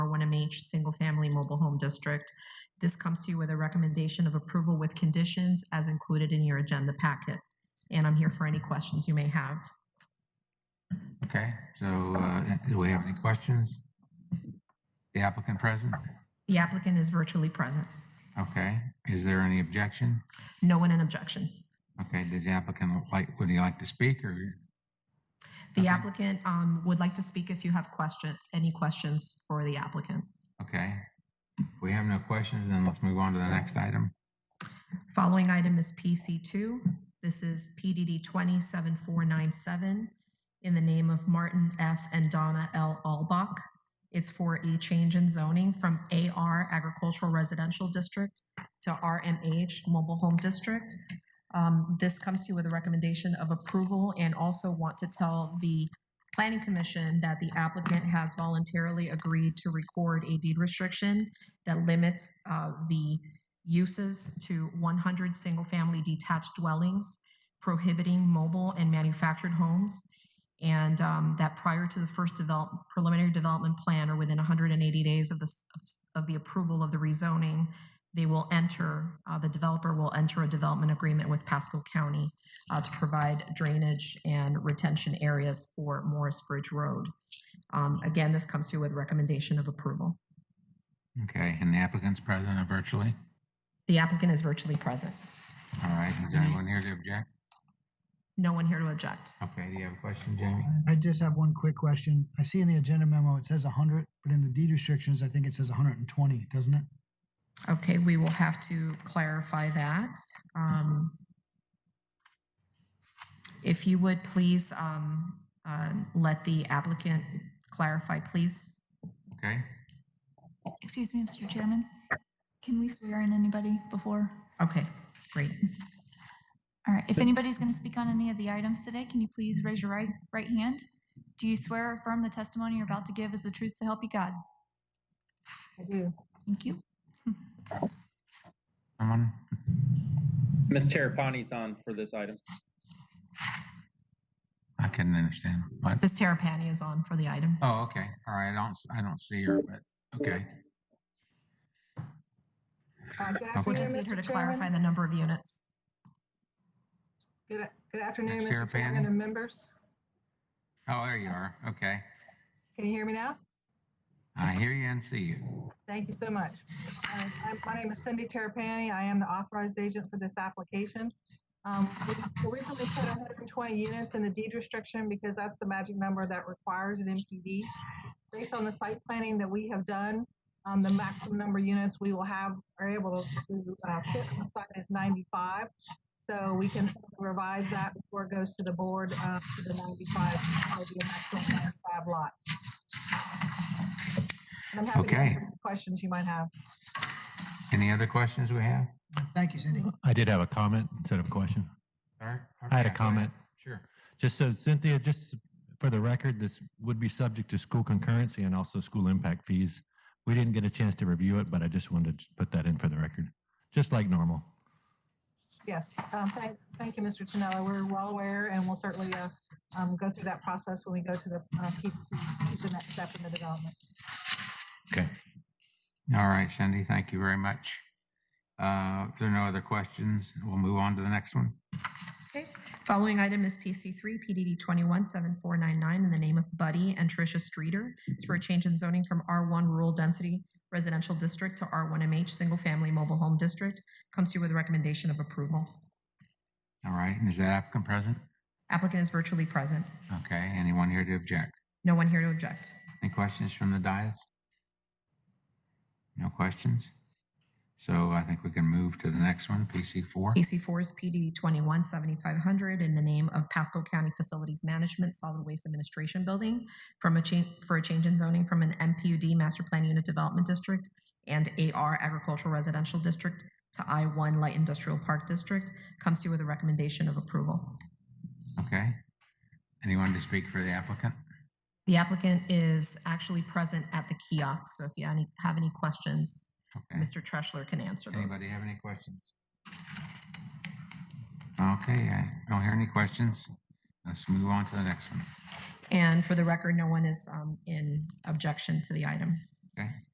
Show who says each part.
Speaker 1: H Single Family Mobile Home District. This comes to you with a recommendation of approval with conditions as included in your agenda packet. And I'm here for any questions you may have.
Speaker 2: Okay, so uh, do we have any questions? The applicant present?
Speaker 1: The applicant is virtually present.
Speaker 2: Okay, is there any objection?
Speaker 1: No one in objection.
Speaker 2: Okay, does the applicant like, would he like to speak or?
Speaker 1: The
Speaker 2: Okay.
Speaker 1: applicant um, would like to speak if you have question, any questions for the applicant.
Speaker 2: Okay, we have no questions, then let's move on to the next item.
Speaker 1: Following item is PC2. This is PDD 27497 in the name of Martin F. and Donna L. Albach. It's for a change in zoning from AR Agricultural Residential District to RMH Mobile Home District. Um, This comes to you with a recommendation of approval and also want to tell the Planning Commission that the applicant has voluntarily agreed to record a deed restriction that limits uh, the uses to 100 single-family detached dwellings, prohibiting mobile and manufactured homes, and um, that prior to the first develop, preliminary development plan or within 180 days of the, s- of s- of the approval of the rezoning, they will enter, uh, the developer will enter a development agreement with Pasco County uh, to provide drainage and retention areas for Morris Bridge Road. Um, Again, this comes to you with recommendation of approval.
Speaker 2: Okay, and the applicant's present or virtually?
Speaker 1: The applicant is virtually present.
Speaker 2: All right, is there anyone here to object?
Speaker 1: No one here to object.
Speaker 2: Okay, do you have a question, Jamie?
Speaker 3: I just have one quick question. I see in the agenda memo, it says hundred, but in the deed restrictions, I think it says hundred and twenty, doesn't it?
Speaker 1: Okay, we will have to clarify that. Um, If you would please um, um, let the applicant clarify, please.
Speaker 2: Okay,
Speaker 4: Excuse me, Mr. Chairman, can we swear in anybody before?
Speaker 1: Okay, great.
Speaker 4: All right, if anybody's going to speak on any of the items today, can you please raise your right, right hand? Do you swear or affirm the testimony you're about to give is the truth to help you God?
Speaker 1: I do.
Speaker 4: Thank you.
Speaker 2: someone?
Speaker 5: Ms. Terrapani's on for this item.
Speaker 2: I couldn't understand, but,
Speaker 1: Ms. Terrapini is on for the item.
Speaker 2: oh, okay, all right, I don't, s- I don't see her, but, okay.
Speaker 6: Uh, Good
Speaker 2: Okay.
Speaker 1: We just
Speaker 6: afternoon,
Speaker 1: need her to
Speaker 6: Mr.
Speaker 1: clarify
Speaker 6: Chairman.
Speaker 1: the number of units.
Speaker 6: Good good afternoon,
Speaker 2: Ms.
Speaker 6: Mr. Chairman
Speaker 2: Terrapini.
Speaker 6: and members.
Speaker 2: Oh, there you are, okay.
Speaker 6: Can you hear me now?
Speaker 2: I hear you and see you.
Speaker 6: Thank you so much. Uh, I'm- My name is Cindy Terrapini. I am the authorized agent for this application. Um, We Originally put 120 units in the deed restriction because that's the magic number that requires an MPD. Based on the site planning that we have done, um, the maximum number of units we will have, are able to uh, fit on site is 95. So we can revise that before it goes to the board, uh, to the 95, or the maximum 95 lots. And I'm happy to
Speaker 2: Okay.
Speaker 6: answer any questions you might have.
Speaker 2: Any other questions we have?
Speaker 3: Thank you, Cindy.
Speaker 7: I did have a comment instead of a question.
Speaker 2: Sir?
Speaker 7: I had a
Speaker 2: Okay, go ahead.
Speaker 7: comment.
Speaker 2: Sure.
Speaker 7: Just so Cynthia, just for the record, this would be subject to school concurrency and also school impact fees. We didn't get a chance to review it, but I just wanted to put that in for the record, just like normal.
Speaker 6: Yes, um, thank, thank you, Mr. Tonello. We're well aware and we'll certainly, uh, um, go through that process when we go to the, uh, keep, keep the next step in the development.
Speaker 7: Okay.
Speaker 2: All right, Cindy, thank you very much. Uh, If there are no other questions, we'll move on to the next one.
Speaker 1: Okay. Following item is PC3, PDD 217499, in the name of Buddy and Tricia Streeter. It's for a change in zoning from R1 Rural Density Residential District to R1MH Single Family Mobile Home District. Comes to you with a recommendation of approval.
Speaker 2: All right, and is that applicant present?
Speaker 1: Applicant is virtually present.
Speaker 2: Okay, anyone here to object?
Speaker 1: No one here to object.
Speaker 2: Any questions from the dais? No questions? So I think we can move to the next one, PC4.
Speaker 1: PC4 is PDD 217500 in the name of Pasco County Facilities Management Solid Waste Administration Building from a change, for a change in zoning from an MPUD Master Plan Unit Development District and AR Agricultural Residential District to I1 Light Industrial Park District. Comes to you with a recommendation of approval.
Speaker 2: Okay. Anyone to speak for the applicant?
Speaker 1: The applicant is actually present at the kiosk, so if you any- have any questions,
Speaker 2: Okay.
Speaker 1: Mr. Treschler can answer those.
Speaker 2: Anybody have any questions? Okay, I don't hear any questions. Let's move on to the next one.
Speaker 1: And for the record, no one is um, in objection to the item.
Speaker 2: Okay?